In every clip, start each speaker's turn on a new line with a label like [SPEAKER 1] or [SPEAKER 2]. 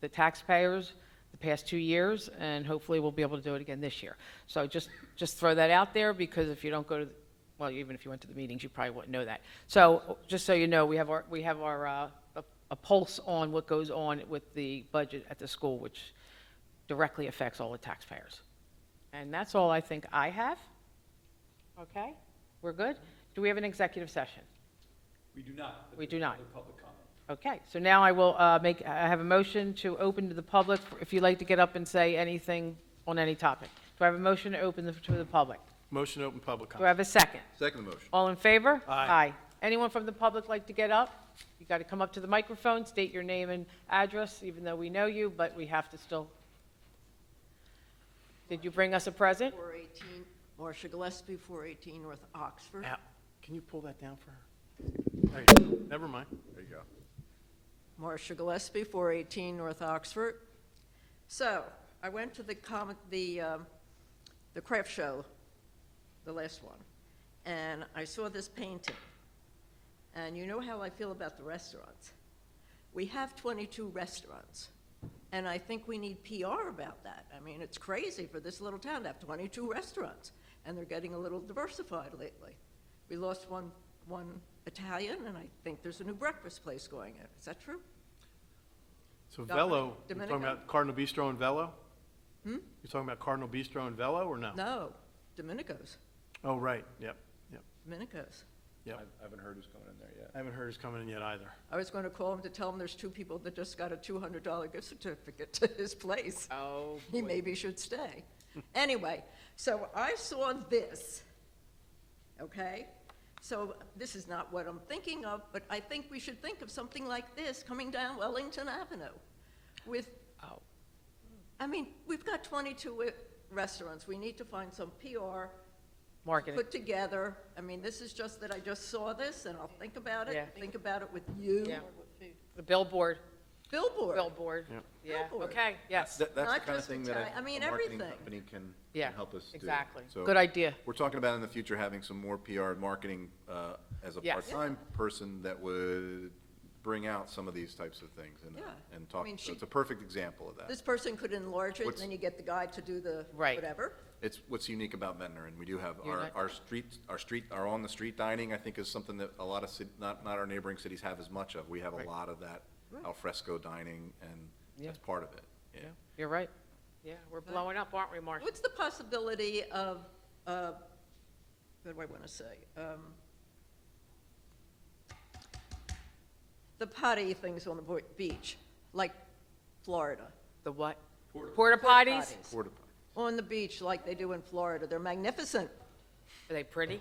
[SPEAKER 1] the taxpayers the past two years, and hopefully we'll be able to do it again this year. So just, just throw that out there, because if you don't go to, well, even if you went to the meetings, you probably wouldn't know that. So, just so you know, we have our, we have our, uh, a- a pulse on what goes on with the budget at the school, which directly affects all the taxpayers. And that's all I think I have. Okay? We're good? Do we have an executive session?
[SPEAKER 2] We do not. but
[SPEAKER 1] We
[SPEAKER 2] there
[SPEAKER 1] do
[SPEAKER 2] is
[SPEAKER 1] not.
[SPEAKER 2] other public comment.
[SPEAKER 1] Okay, so now I will uh, make, I have a motion to open to the public, if you'd like to get up and say anything on any topic. Do I have a motion to open the- to the public?
[SPEAKER 3] Motion to open public
[SPEAKER 1] Do I
[SPEAKER 3] comment.
[SPEAKER 1] have a second?
[SPEAKER 4] Second motion.
[SPEAKER 1] All in favor?
[SPEAKER 3] Aye.
[SPEAKER 1] Anyone from the public like to get up? You got to come up to the microphone, state your name and address, even though we know you, but we have to still. Did you bring us a present?
[SPEAKER 5] 418, Marcia Gillespie, 418 North Oxford.
[SPEAKER 3] Ow. Can you pull that down for her? There you go. Never mind.
[SPEAKER 4] There you go.
[SPEAKER 5] Marcia Gillespie, 418 North Oxford. So, I went to the comet, the, um, the craft show, the last one, and I saw this painting. And you know how I feel about the restaurants. We have 22 restaurants, and I think we need PR about that. I mean, it's crazy for this little town to have 22 restaurants, and they're getting a little diversified lately. We lost one, one Italian, and I think there's a new breakfast place going in. Is that true?
[SPEAKER 3] So
[SPEAKER 5] Dominic-
[SPEAKER 3] Velo, you're talking
[SPEAKER 5] Domenico.
[SPEAKER 3] about Cardinal Bistro and Velo?
[SPEAKER 1] Hmm?
[SPEAKER 3] You're talking about Cardinal Bistro and Velo or no?
[SPEAKER 5] No, Domenico's,
[SPEAKER 3] Oh, right. Yep, yep,
[SPEAKER 5] Domenico's.
[SPEAKER 3] yep.
[SPEAKER 4] I haven't heard who's coming in there yet.
[SPEAKER 3] I haven't heard it's coming in yet either.
[SPEAKER 5] I was going to call him to tell him there's two people that just got a $200 gift certificate to his place.
[SPEAKER 1] Oh.
[SPEAKER 5] He maybe should stay. Anyway, so I saw this, okay? So this is not what I'm thinking of, but I think we should think of something like this coming down Wellington Avenue with,
[SPEAKER 1] Oh.
[SPEAKER 5] I mean, we've got 22 restaurants. We need to find some PR
[SPEAKER 1] Marketing.
[SPEAKER 5] put together. I mean, this is just that I just saw this and I'll think about
[SPEAKER 1] Yeah.
[SPEAKER 5] it, think about it with you.
[SPEAKER 1] Yeah. The billboard,
[SPEAKER 5] Billboard.
[SPEAKER 1] billboard.
[SPEAKER 3] Yeah.
[SPEAKER 1] Yeah,
[SPEAKER 5] Billboard.
[SPEAKER 1] okay, yes.
[SPEAKER 4] That- That's the
[SPEAKER 5] Not
[SPEAKER 4] kind of
[SPEAKER 5] just
[SPEAKER 4] thing that
[SPEAKER 5] Italian- I
[SPEAKER 4] I
[SPEAKER 5] mean,
[SPEAKER 4] think a marketing
[SPEAKER 5] everything.
[SPEAKER 4] company can
[SPEAKER 1] Yeah,
[SPEAKER 4] can help us do.
[SPEAKER 1] exactly.
[SPEAKER 4] So
[SPEAKER 1] Good idea.
[SPEAKER 4] We're talking about in the future having some more PR and marketing uh, as a
[SPEAKER 1] Yes.
[SPEAKER 4] part-time person that would bring out some of these types of things and, uh,
[SPEAKER 5] Yeah.
[SPEAKER 4] and
[SPEAKER 5] I
[SPEAKER 4] talk.
[SPEAKER 5] mean,
[SPEAKER 4] so
[SPEAKER 5] she-
[SPEAKER 4] It's a perfect example of that.
[SPEAKER 5] This person could enlarge it, and
[SPEAKER 4] What's-
[SPEAKER 5] then you get the guy to do the
[SPEAKER 1] Right.
[SPEAKER 5] whatever.
[SPEAKER 4] It's what's unique about Ventnor, and we do have
[SPEAKER 1] You're
[SPEAKER 4] our,
[SPEAKER 1] not-
[SPEAKER 4] our street, our street, our on-the-street dining, I think is something that a lot of, cit- not, not our neighboring cities have as much of. We have a
[SPEAKER 1] Right.
[SPEAKER 4] lot of that
[SPEAKER 5] Right.
[SPEAKER 4] al fresco dining, and
[SPEAKER 1] Yeah.
[SPEAKER 4] that's part of it, yeah.
[SPEAKER 1] You're right. Yeah, we're blowing up, aren't we, Marcia?
[SPEAKER 5] What's the possibility of, uh, what do I want to say? Um, The potty things on the bo- beach, like Florida.
[SPEAKER 1] The what?
[SPEAKER 2] Porta-
[SPEAKER 1] Porta potties?
[SPEAKER 5] Potties.
[SPEAKER 4] Porta-
[SPEAKER 5] On the beach, like they do in Florida. They're magnificent.
[SPEAKER 1] Are they pretty?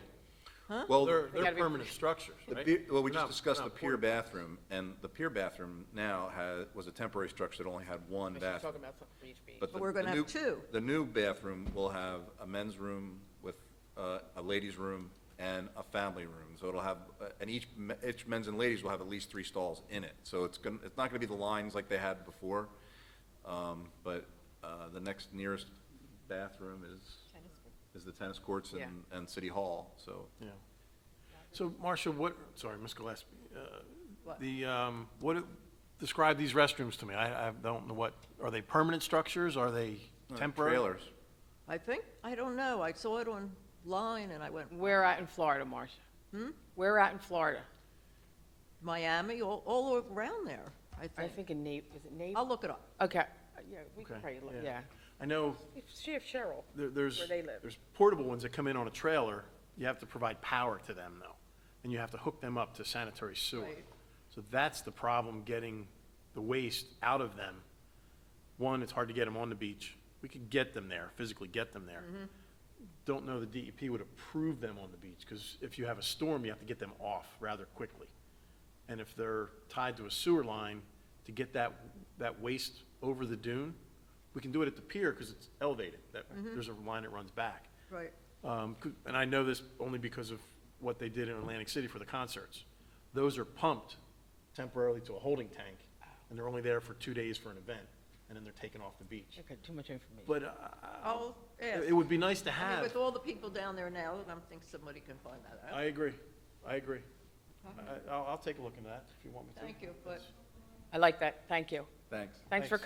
[SPEAKER 4] Well,
[SPEAKER 3] They're,
[SPEAKER 1] gotta
[SPEAKER 3] they're
[SPEAKER 1] be-
[SPEAKER 3] permanent structures,
[SPEAKER 4] The
[SPEAKER 3] right?
[SPEAKER 4] pier- Well, we
[SPEAKER 3] They're
[SPEAKER 4] just
[SPEAKER 3] not-
[SPEAKER 4] discussed
[SPEAKER 3] they're
[SPEAKER 4] the
[SPEAKER 3] not
[SPEAKER 4] pier
[SPEAKER 3] portable.
[SPEAKER 4] bathroom, and the pier bathroom now has, was a temporary structure that only had one
[SPEAKER 1] She's
[SPEAKER 4] bathroom.
[SPEAKER 1] talking about something for each beach.
[SPEAKER 4] the-
[SPEAKER 5] But we're gonna
[SPEAKER 4] the
[SPEAKER 5] have
[SPEAKER 4] new-
[SPEAKER 5] two.
[SPEAKER 4] The new bathroom will have a men's room with uh, a ladies' room and a family room. So it'll have, uh, and each, me- each men's and ladies will have at least three stalls in it. So it's gonna, it's not gonna be the lines like they had before. Um, But uh, the next nearest bathroom is, is the tennis courts and, and City Hall, so.
[SPEAKER 3] Yeah. So Marcia, what, sorry, Ms. Gillespie, uh,
[SPEAKER 5] What?
[SPEAKER 3] the, um, what, describe these restrooms to me. I, I don't know what, are they permanent structures? Are they
[SPEAKER 4] uh,
[SPEAKER 3] temporary?
[SPEAKER 4] Trailers.
[SPEAKER 5] I think, I don't know. I saw it online, and I went,
[SPEAKER 1] Where at in Florida, Marcia? Hmm? Where at in Florida?
[SPEAKER 5] Miami, all, all around there, I
[SPEAKER 1] I
[SPEAKER 5] think.
[SPEAKER 1] think in Nate, is it Nate?
[SPEAKER 5] I'll look it up.
[SPEAKER 1] Oh. Okay, Uh, yeah, we can
[SPEAKER 3] Okay,
[SPEAKER 1] probably, look- yeah.
[SPEAKER 3] I know
[SPEAKER 1] See if Cheryl.
[SPEAKER 3] There, there's,
[SPEAKER 1] Where they live.
[SPEAKER 3] there's portable ones that come in on a trailer, you have to provide power to them though, and you have to hook them up to sanitary sewer.
[SPEAKER 5] Right.
[SPEAKER 3] So that's the problem, getting the waste out of them. One, it's hard to get them on the beach, we could get them there, physically get them
[SPEAKER 1] Mm-hmm.
[SPEAKER 3] there. Don't know the DEP would approve them on the beach, because if you have a storm, you have to get them off rather quickly. And if they're tied to a sewer line, to get that, that waste over the dune, we can do it at the pier because it's elevated. That,
[SPEAKER 5] Mm-hmm.
[SPEAKER 3] there's a line that runs back.
[SPEAKER 5] Right.
[SPEAKER 3] Um, cou- and I know this only because of what they did in Atlantic City for the concerts. Those are pumped temporarily to a holding tank, and they're only there for two days for an event, and then they're taken off the beach.
[SPEAKER 1] Okay, too much information.
[SPEAKER 3] But, uh,
[SPEAKER 5] I'll ask.
[SPEAKER 3] it it would be nice to
[SPEAKER 5] I mean,
[SPEAKER 3] have.
[SPEAKER 5] with all the people down there now, I don't think somebody can find that out.
[SPEAKER 3] I agree, I agree. I, I'll, I'll take a look into that if you want me to.
[SPEAKER 5] Thank you, but
[SPEAKER 1] I like that, thank you.
[SPEAKER 4] Thanks.
[SPEAKER 1] Thanks for
[SPEAKER 3] Thanks.